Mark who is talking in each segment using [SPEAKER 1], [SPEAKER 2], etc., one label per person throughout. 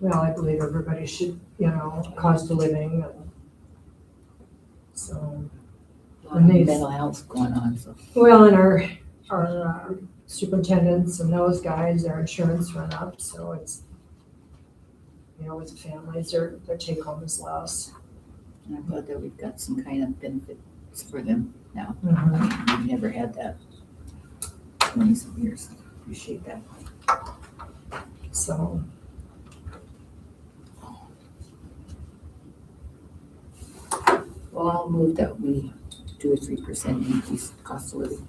[SPEAKER 1] well, I believe everybody should, you know, cost a living and so.
[SPEAKER 2] lot of mental health going on, so.
[SPEAKER 1] Well, and our, our uh, superintendents and those guys, their insurance went up, so it's, you know, with families, their, their take home is less.
[SPEAKER 2] And I'm glad that we've got some kind of benefits for them now. We've never had that twenty some years. Appreciate that.
[SPEAKER 1] So.
[SPEAKER 2] Well, I'll move that we do a three percent increase in cost of living.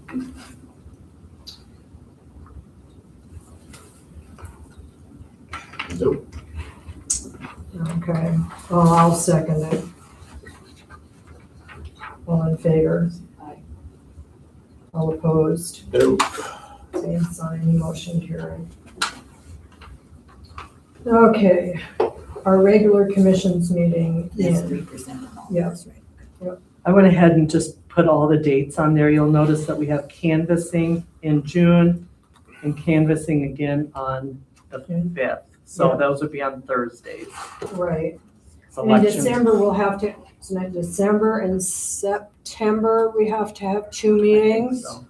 [SPEAKER 3] So,
[SPEAKER 1] Okay, well, I'll second it. All in favor?
[SPEAKER 2] Aye.
[SPEAKER 1] All opposed?
[SPEAKER 3] no,
[SPEAKER 1] Same sign, motion carried. Okay, our regular commissions meeting
[SPEAKER 2] That's
[SPEAKER 1] is,
[SPEAKER 2] three percent on all.
[SPEAKER 1] Yeah.
[SPEAKER 2] That's right.
[SPEAKER 4] I went ahead and just put all the dates on there. You'll notice that we have canvassing in June and canvassing again on the fifth.
[SPEAKER 1] Yeah.
[SPEAKER 4] So those would be on Thursdays.
[SPEAKER 1] right. In
[SPEAKER 4] Selection.
[SPEAKER 1] December, we'll have to, it's not December and September, we have to have two meetings.
[SPEAKER 4] So,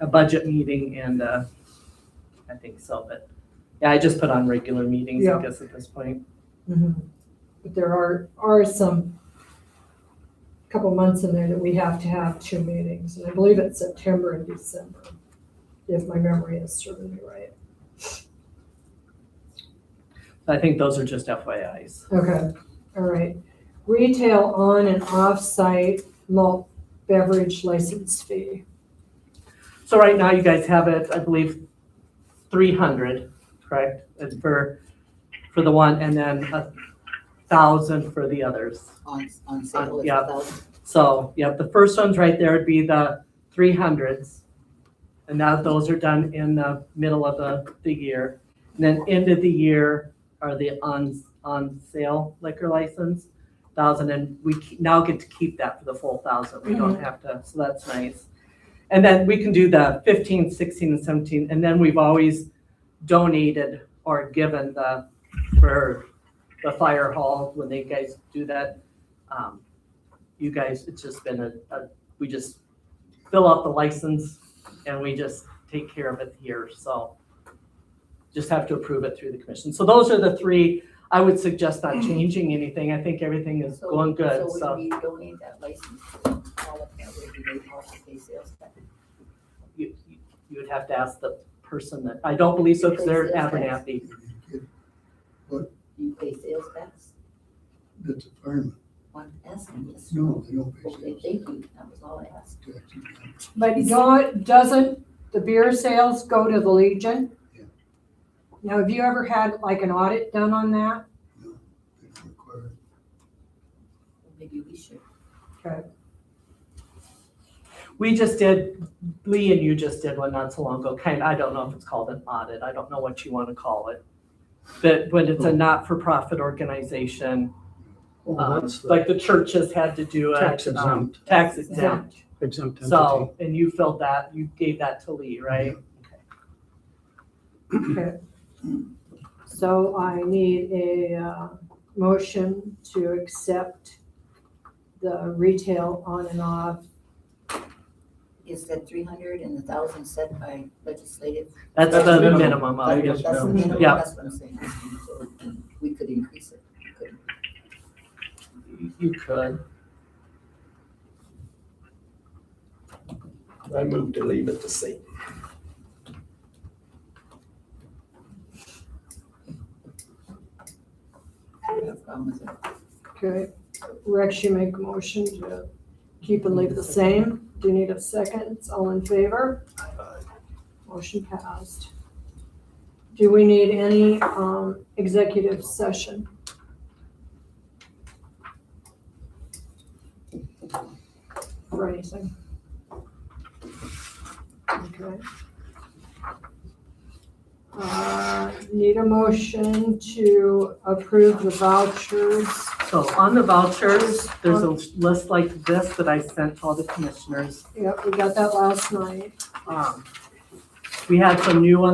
[SPEAKER 4] A budget meeting and, uh, I think so, but, yeah, I just put on regular meetings,
[SPEAKER 1] Yeah.
[SPEAKER 4] I guess, at this point.
[SPEAKER 1] Mhm. But there are, are some, couple months in there that we have to have two meetings, and I believe it's September and December, if my memory is serving me right.
[SPEAKER 4] I think those are just FYIs.
[SPEAKER 1] Okay, all right. Retail on and off-site malt beverage license fee.
[SPEAKER 4] So right now, you guys have it, I believe, three hundred, correct? It's for, for the one, and then a thousand for the others.
[SPEAKER 2] On, on sale. is
[SPEAKER 4] yeah.
[SPEAKER 2] about-
[SPEAKER 4] So, yep, the first ones right there would be the three hundreds. And now those are done in the middle of the, the year. And then end of the year are the on, on sale liquor license, thousand, and we ke- now get to keep that for the full thousand. We don't have to, so that's nice. And then we can do the 15, 16, and seventeen, and then we've always donated or given the, for the fire hall, when they guys do that. Um, you guys, it's just been a, a, we just fill out the license and we just take care of it here, so. Just have to approve it through the commission. So those are the three. I would suggest not changing anything. I think everything is
[SPEAKER 2] So-
[SPEAKER 4] going good, so.
[SPEAKER 2] So we donate that license to all of that, would be they also pay sales tax.
[SPEAKER 4] you, you you would have to ask the person that, I don't believe so, because they're
[SPEAKER 2] Because it's-
[SPEAKER 4] Abernathy.
[SPEAKER 2] You pay sales tax
[SPEAKER 3] that's a fireman.
[SPEAKER 2] on asking, yes.
[SPEAKER 3] No, they don't pay
[SPEAKER 2] Okay,
[SPEAKER 3] sales
[SPEAKER 2] thank you. That was all I asked.
[SPEAKER 3] tax.
[SPEAKER 1] But don't, doesn't the beer sales go to the Legion?
[SPEAKER 3] Yeah.
[SPEAKER 1] Now, have you ever had like an audit done on that?
[SPEAKER 3] They don't require it.
[SPEAKER 2] Maybe we should.
[SPEAKER 4] We just did, Lee and you just did one not so long ago, kind, I don't know if it's called an audit, I don't know what you want to call it. But when it's a not-for-profit organization,
[SPEAKER 5] Oh,
[SPEAKER 4] um,
[SPEAKER 5] that's the
[SPEAKER 4] like the churches had to do a.
[SPEAKER 5] tax exempt,
[SPEAKER 4] Tax exempt,
[SPEAKER 5] exempt entity.
[SPEAKER 4] so, and you filled that, you gave that to Lee, right?
[SPEAKER 1] So I need a uh, motion to accept the retail on and off.
[SPEAKER 2] Is that three hundred and the thousand set by legislative?
[SPEAKER 4] That's
[SPEAKER 5] That's
[SPEAKER 4] the
[SPEAKER 5] minimum.
[SPEAKER 4] minimum of
[SPEAKER 5] I
[SPEAKER 4] it.
[SPEAKER 5] guess
[SPEAKER 2] That's the
[SPEAKER 5] minimum.
[SPEAKER 2] minimum,
[SPEAKER 4] Yeah.
[SPEAKER 2] that's what I'm saying. So We could increase it. couldn't we?
[SPEAKER 4] You could,
[SPEAKER 6] I move to leave it the same.
[SPEAKER 2] I don't have a problem with that.
[SPEAKER 1] Okay, Rex, you make a motion to keep and leave the same. Do you need a second? All in favor? Motion passed. Do we need any um, executive session? For anything? Okay. Uh, Need a motion to approve the vouchers
[SPEAKER 4] So on the vouchers, there's a
[SPEAKER 5] Um,
[SPEAKER 4] list like this that I sent to all the commissioners.
[SPEAKER 1] Yep, we got that last night.
[SPEAKER 4] Um, We had some new ones